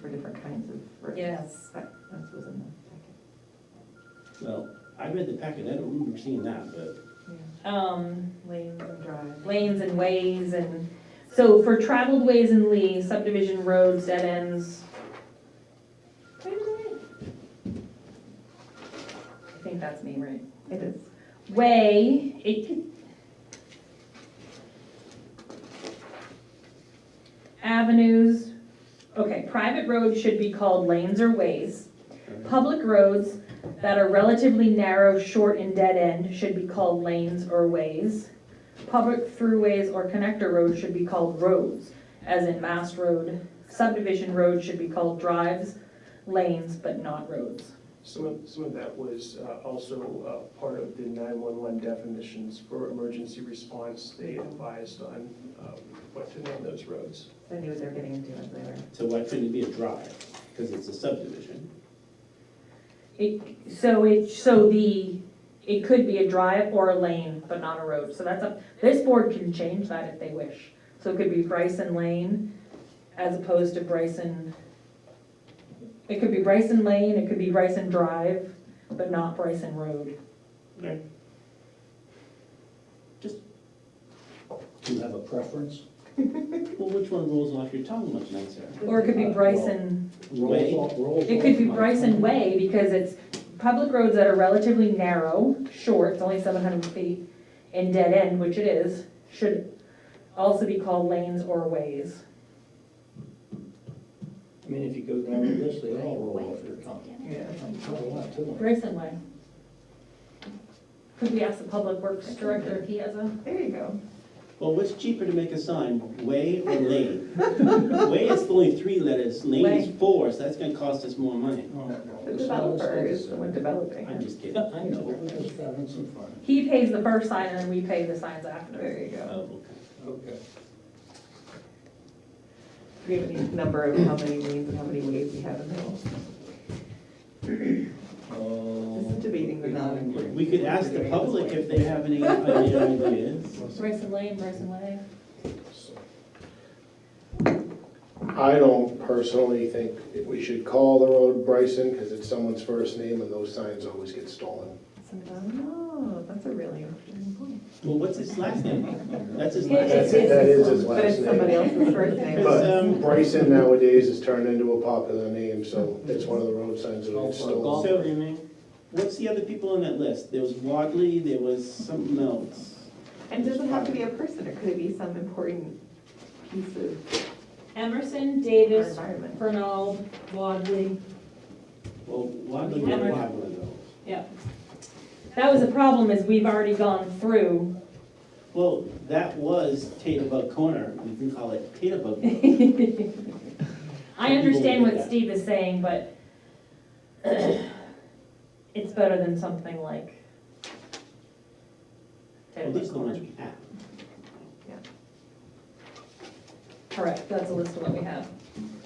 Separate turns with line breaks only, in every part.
for different kinds of roads.
Yes.
But That was in the
Well, I read the packet, I don't remember seeing that, but
packet.
Um,
Yeah. Lanes and drives.
lanes and ways and, so for traveled ways in Lee, subdivision roads, dead ends. Wait a minute. I think that's me, right?
It is.
Way, it. Avenues, okay, private roads should be called lanes or ways. Public roads that are relatively narrow, short, and dead-end should be called lanes or ways. Public throughways or connector roads should be called roads, as in Mass Road. Subdivision roads should be called drives, lanes, but not roads.
Some of, some of that was uh, also uh, part of the 911 definitions for emergency response. They advised on um, what to name those roads.
I knew what they were getting into as they were.
so why couldn't it be a drive? Because it's a subdivision.
It, so it, so the, it could be a drive or a lane, but not a road, so that's up, this board can change that if they wish. So it could be Bryson Lane as opposed to Bryson, it could be Bryson Lane, it could be Bryson Drive, but not Bryson Road.
Do you have a preference?
Well, which one rolls off your tongue much nicer?
Or it could be Bryson,
Way.
Rolls off- rolls
it could
off
be
my
Bryson
tongue.
Way because it's public roads that are relatively narrow, short, it's only seven hundred feet, and dead end, which it is, should also be called lanes or ways.
I mean, if you go down the list, they all roll off your tongue.
Yeah.
I'm telling you that too.
Grayson Way. Could we ask the public works director if he has a?
There you go.
Well, what's cheaper to make a sign, way or lane? Way is only three letters, lane
Way.
is four, so that's gonna cost us more money.
Oh, no,
The
this is all
developer is
stuff.
the one developing.
I'm
it.
just kidding.
I know, we're just having some fun.
He pays the first sign and then we pay the signs after.
There you go.
Oh, okay.
Okay.
Do we have any number of how many lanes and how many ways we have in the middle? This is
This
debating the non-important.
We could ask the public if they have any ideas.
Grayson Lane, Grayson Way.
I don't personally think we should call the road Bryson, because it's someone's first name, and those signs always get stolen.
Oh, that's a really interesting point.
Well, what's his last name? That's his last
That's,
name.
that is his
But
last
it's somebody
name.
else's first name.
But, um,
Bryson nowadays is turned into a popular name, so it's one of the road signs that gets stolen.
So, what's the other people on that list? There was Wadley, there was something else.
And does it have to be a person, or could it be some important piece of
Emerson,
our
Davis,
environment?
Fernald, Wadley,
Well, Wadley would have had one of those.
That was the problem is we've already gone through.
Well, that was Taterbug Corner, we can call it Taterbug. Road.
I understand what Steve is saying, but it's better than something like.
Well, these are the ones we have.
Correct, that's a list of what we have,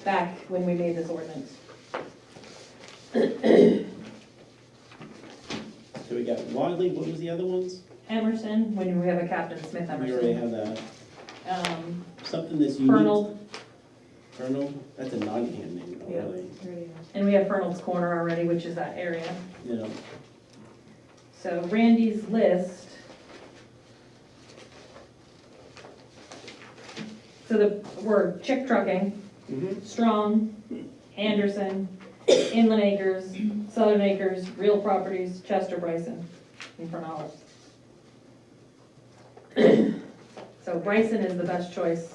back when we made this ordinance.
So we got Wadley, what was the other ones?
Emerson, when we have a Captain Smith
We already
Emerson.
have that,
Um,
something that's unique.
Fernald,
Colonel, that's a Nottingham name, though,
Yeah.
really,
and we have Fernald's Corner already, which is that area.
you know.
So Randy's list. So the, we're Chick Trucking,
Mm-hmm.
Strong, Anderson, Inland Acres, Southern Acres, Real Properties, Chester Bryson, and Fernald. So Bryson is the best choice.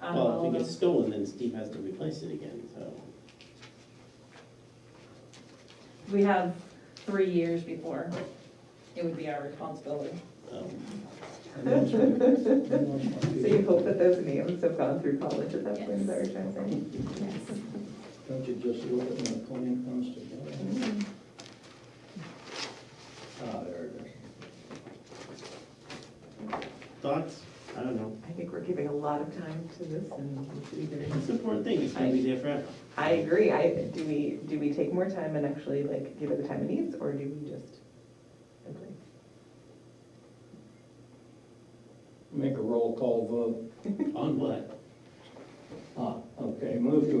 out of all
Well,
of
if it
them.
gets stolen, then Steve has to replace it again, so.
We have three years before it would be our responsibility.
um,
So you hope that those names have gone through college at that point, is that what you're trying
Don't you just look at when the plan comes together?
to say?
Ah, there it is.
Thoughts? I don't know.
I think we're giving a lot of time to this and we should be
It's
doing-
an important thing, it's gonna be there forever.
I agree, I, do we, do we take more time and actually like give it the time it needs, or do we just agree?
Make a roll call vote.
On what?
Ah, okay, move to